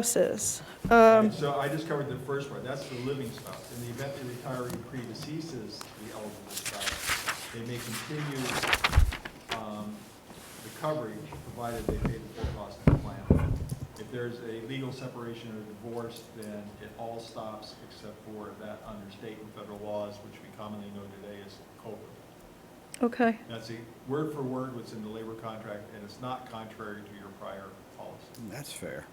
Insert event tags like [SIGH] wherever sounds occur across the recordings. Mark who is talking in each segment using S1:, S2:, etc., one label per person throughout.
S1: spouses. Um,
S2: And So I just covered the first part, that's the living spouse. In the event the retiree predeceases the eligible spouse, they may continue um, the coverage, provided they pay the full cost of the plan. If there's a legal separation or divorce, then it all stops except for that under state and federal laws, which we commonly know today as COBRA.
S1: Okay,
S2: That's a word for word what's in the labor contract, and it's not contrary to your prior policy.
S3: That's fair.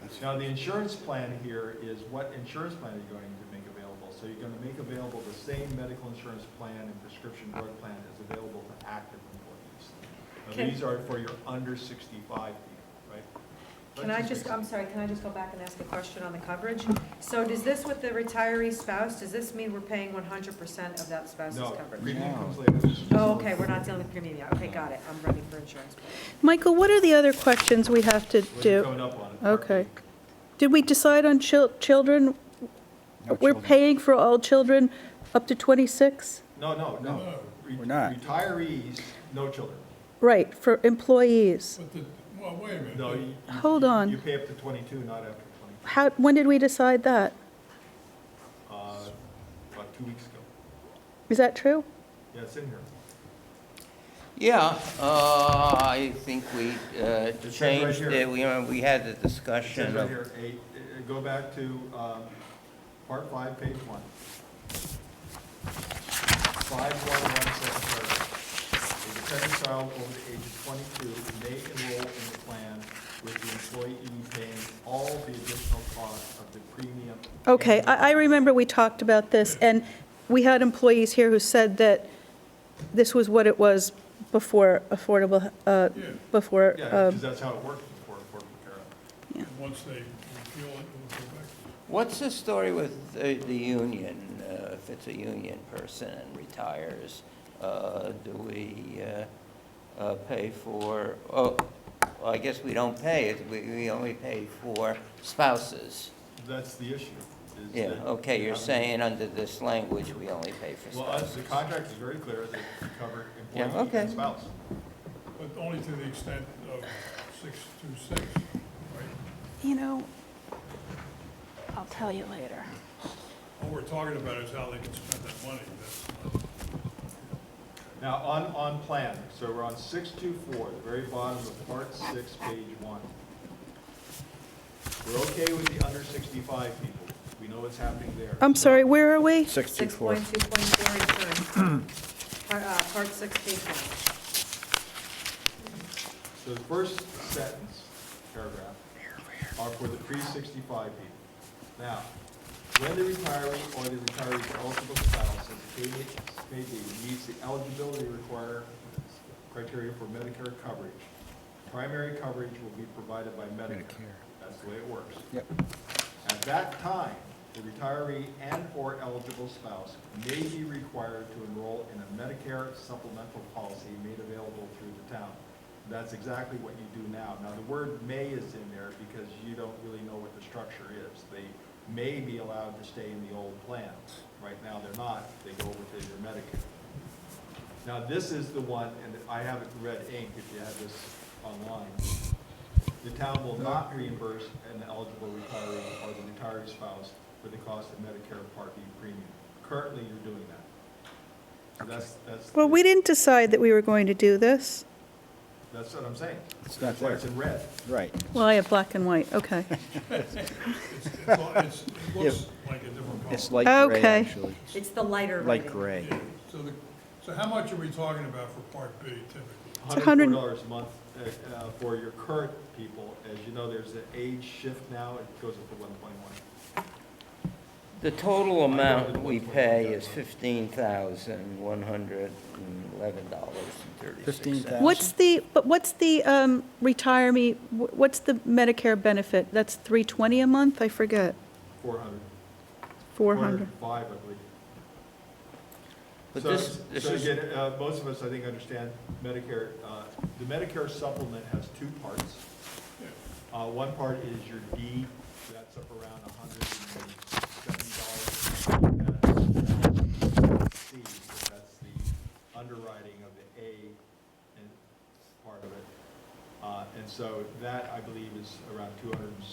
S3: That's-
S2: Now, the insurance plan here is what insurance plan are you going to make available? So you're gonna make available the same medical insurance plan and prescription drug plan as available to active employees. Now,
S4: Can-
S2: these are for your under sixty-five people, right?
S4: Can
S2: Let's
S4: I just,
S2: make-
S4: I'm sorry, can I just go back and ask a question on the coverage? So does this with the retiree spouse, does this mean we're paying one hundred percent of that spouse's
S2: No,
S4: coverage?
S2: premium
S3: No.
S2: comes later.
S4: Oh, okay, we're not dealing with premium yet. Okay, got it. I'm running for insurance.
S1: Michael, what are the other questions we have to
S2: We're
S1: do?
S2: coming up on it.
S1: Okay. Did we decide on chil- children?
S3: No
S1: We're
S3: children.
S1: paying for all children up to 26?
S2: No, no, no. Re-
S3: We're not.
S2: Retirees, no children.
S1: Right, for employees.
S5: But the, well, wait a minute.
S2: No, you. you-
S1: Hold on.
S2: You pay up to twenty-two, not after twenty,
S1: How, when did we decide that?
S2: uh, about two weeks ago.
S1: Is that true?
S2: Yeah, it's in here.
S6: Yeah, uh, I think we uh,
S2: It says right
S6: changed
S2: here.
S6: it, we, uh, we had the
S2: It says
S6: discussion
S2: right
S6: of,
S2: here, eight, uh, go back to, um, part five, page one. Five one one second paragraph. A dependent child over the age of twenty-two may enroll in the plan with the employee paying all the additional cost of the premium.
S1: Okay,
S2: and-
S1: I, I remember we talked about this, and we had employees here who said that this was what it was before affordable, uh,
S5: Yeah.
S1: before,
S2: Yeah,
S1: um,
S2: because that's how it worked before, before Carol.
S5: And Once they repeal it, we'll go back.
S6: what's the story with the, the union? Uh, If it's a union person and retires, uh, do we uh, uh, pay for, oh, well, I guess we don't pay, it. we, we only pay for spouses.
S2: That's the issue. is
S6: Yeah,
S2: that-
S6: okay, you're
S2: I mean,
S6: saying under this language, we only pay for
S2: Well, uh,
S6: spouses.
S2: the contract is very clear that you cover
S6: Yeah,
S2: employee
S6: okay.
S2: and spouse.
S5: But only to the extent of six to six, right?
S7: You know, I'll tell you later.
S5: All we're talking about is how they can spend that money. That's not-
S2: Now, on, on plan, so we're on six two four, the very bottom of part six, page one. We're okay with the under sixty-five people. We know what's happening there.
S1: I'm sorry, where are we?
S3: Six two
S4: Six
S3: four.
S4: point two point four insurance. Part, uh, part six, page one.
S2: So the first sentence, paragraph, are for the pre-sixty-five people. Now, when the retiree or the retiree's eligible spouse, as the case may be, meets the eligibility require, criteria for Medicare coverage, primary coverage will be provided by Medicare.
S3: Medicare.
S2: That's the way it works.
S3: Yep.
S2: At that time, the retiree and/or eligible spouse may be required to enroll in a Medicare supplemental policy made available through the town. That's exactly what you do now. Now, the word "may" is in there because you don't really know what the structure is. They may be allowed to stay in the old plan. Right now, they're not. They go over to your Medicare. Now, this is the one, and I haven't read ink, if you have this online. The town will not reimburse an eligible retiree or the retiree spouse for the cost of Medicare Part B premium. Currently, you're doing that. So that's, that's.
S1: Well, we didn't decide that we were going to do this.
S2: That's what I'm saying.
S3: It's not
S2: That's why
S3: there.
S2: it's in red.
S3: Right.
S1: Well, I have black and white, [LAUGHS] okay.
S5: It's, it's, well,
S2: [LAUGHS]
S5: it's- it looks like a different color.
S3: It's light gray,
S1: Okay.
S3: actually.
S4: It's the lighter
S3: Light
S4: rating.
S3: gray.
S5: Yeah. So the, so how much are we talking about for part B typically?
S1: a hundred-
S2: Hundred dollars a month uh, uh, for your current people. As you know, there's an age shift now. It goes up to one point one.
S6: The total amount we pay is fifteen thousand, one hundred and eleven dollars and thirty-six
S3: $15,000.
S6: cents.
S1: What's the, but what's the um, retiree, wh- what's the Medicare benefit? That's 320 a month, I forget,
S2: Four hundred.
S1: 400.
S2: Five, I believe.
S6: But
S2: So,
S6: this, this
S2: so
S6: is,
S2: again, uh, most of us, I think, understand Medicare, uh, the Medicare supplement has two parts. Uh, One part is your D, that's up around $170. That's C, so that's the underwriting of the A and part of it. Uh, And so that, I believe, is around 200